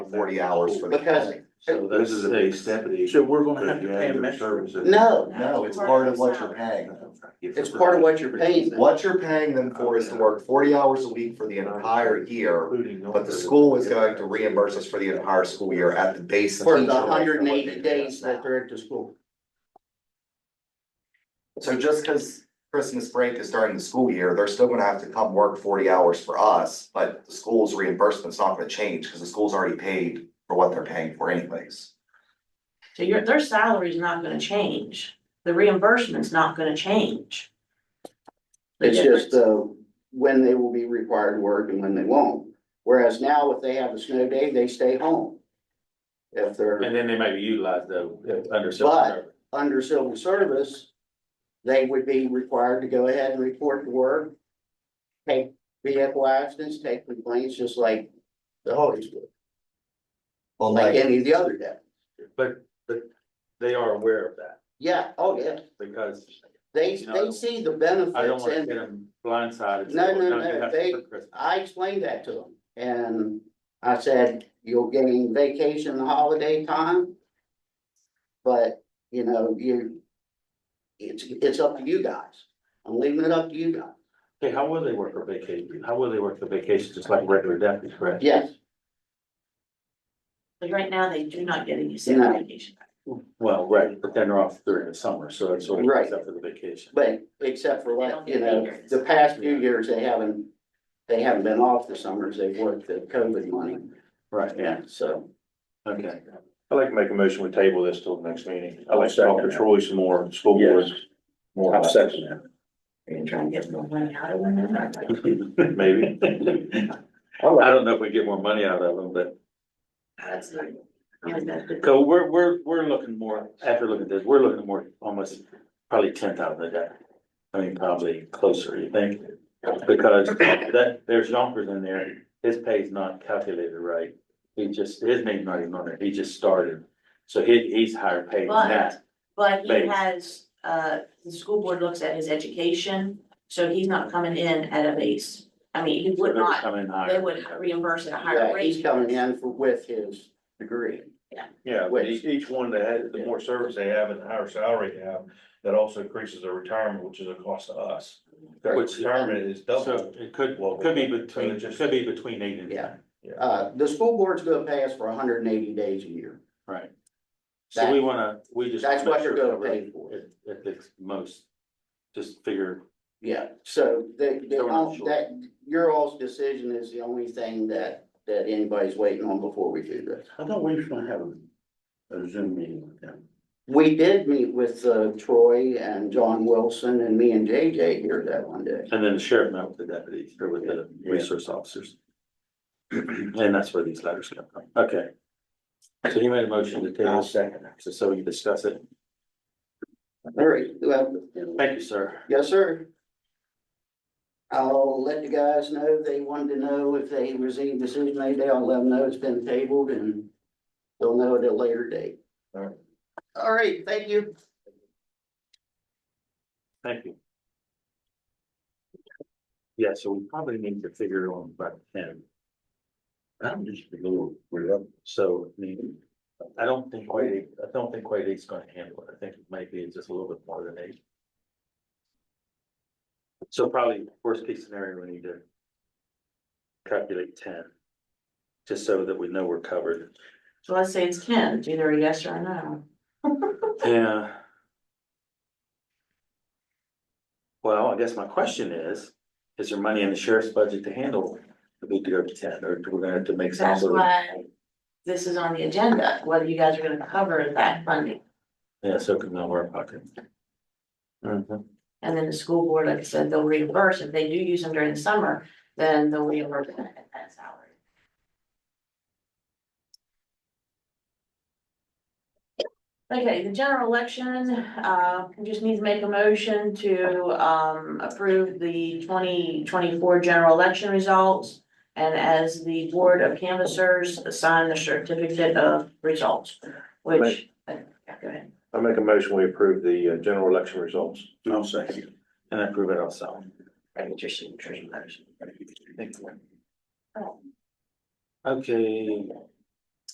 forty hours for the Because- county. So This is a big step in the. So we're gonna have to Yeah, pay a their metro. services. No, No, it's part of what you're paying. it's part of what you're paying them. What you're paying them for is to work forty hours a week for the entire year, but the school is going to reimburse us for the entire school year at the base. For the teacher rate hundred and what they eighty did. days that they're at the school. So just because Christmas break is during the school year, they're still gonna have to come work forty hours for us, but the school's reimbursement's not gonna change, because the school's already paid for what they're paying for anyways. So your, their salary's not gonna change, the reimbursement's not gonna change. The It's just, difference- uh, when they will be required to work and when they won't. Whereas now, if they have a snow day, they stay home. If they're And then they may be utilized though, if under. But- under civil service, they would be required to go ahead and report to work. Take vehicle accidents, take complaints, just like the Hollies would, Well, like any of the other day. But, but they are aware of that Yeah, oh, yeah, because they, You know, they see I the don't benefits wanna get and them blindsided. No, Don't no, do no, that they- for Christmas. I explained that to them. And I said, you'll gain vacation the holiday time. But, you know, you, it's, it's up to you guys. I'm leaving it up to you guys. Okay, how will they work for vacation? How will they work for vacation, just like regular deputies, correct? Yes, But right now, they do not get any sick No. vacation. Well, right, but then they're off during the summer, so that's what Right. it's up for the vacation. but except for like, you know, the past few years, they haven't, they haven't been off the summers. They've worked the COVID money. Right, yeah, Yeah, so. okay. I'd like to make a motion, we table this till the next meeting. I'd I'll like to talk second to that. Troy some more, school boards. More. about Are you trying to get more money out of them? it, Maybe. I don't know if we get more money out of them, but, That's not. really that good. so we're, we're, we're looking more, after looking at this, we're looking more, almost probably ten thousand a day. I mean, probably closer, you think? Because that, there's Yonkers in there, his pay's not calculated right. He just, his name's not even on there, he just started, so he, he's higher paid than that. But he Base. has, uh, the school board looks at his education, so he's not coming in at a base. I mean, he would They're not, coming higher. they would reimburse at a higher Yeah, rate. he's coming in for, with his degree. Yeah, but each, each one that has, the more service they have and the higher salary they have, that also increases their retirement, which is a cost to us. Their Which- retirement is So double. it could, Well, could be so between, it just- could be between eight and Yeah. ten. Uh, the school board's gonna pay us for hundred and eighty days a year. Right. So we wanna, we just. That's what you're gonna make pay sure for. At, at the most, just figure, Yeah, so the, the, They're not sure. that, your all's decision is the only thing that, that anybody's waiting on before we do this. I thought we were gonna have a- a Zoom meeting with them. We did meet with, uh, Troy and John Wilson and me and JJ here that one day. and then the sheriff met with the deputies or with the Yeah. resource officers. And that's where these letters come from, okay. So he made a motion to table, second. so- so we can discuss it, All right, well, thank you, sir. yes, sir. I'll let the guys know, they wanted to know if they received the decision made, day. I'll let them know it's been tabled and they'll know at a later date. All right. All right, thank you. Thank you. Yeah, so we probably need to figure it on about ten. I'm just a little, we're up, so, I mean, I don't think quite, eight- I don't think quite eight's gonna handle it, I think it might be just a little bit more than eight. So probably worst case scenario, we need to. Calculate ten. Just so that we know we're covered. So let's say it's ten, it's either a yes or a no. Yeah. Well, I guess my question is, is there money in the sheriff's budget to handle the big deal of ten, or do we gonna have to make some That's sort of? why this is on the agenda, whether you guys are gonna cover that funding. Yeah, so it can go in our pocket. Mhm. And then the school board, like I said, they'll reimburse. If they do use them during the summer, then they'll reimburse them at that salary. Okay, the general election, uh, we just need to make a motion to, um, approve the twenty twenty-four general election results. And as the board of canvassers, assign the certificate of results, which, uh, yeah, go ahead. I make a motion, we approve the uh, general election results. I'll second. And I prove it also. Right, get your signature letters. Okay,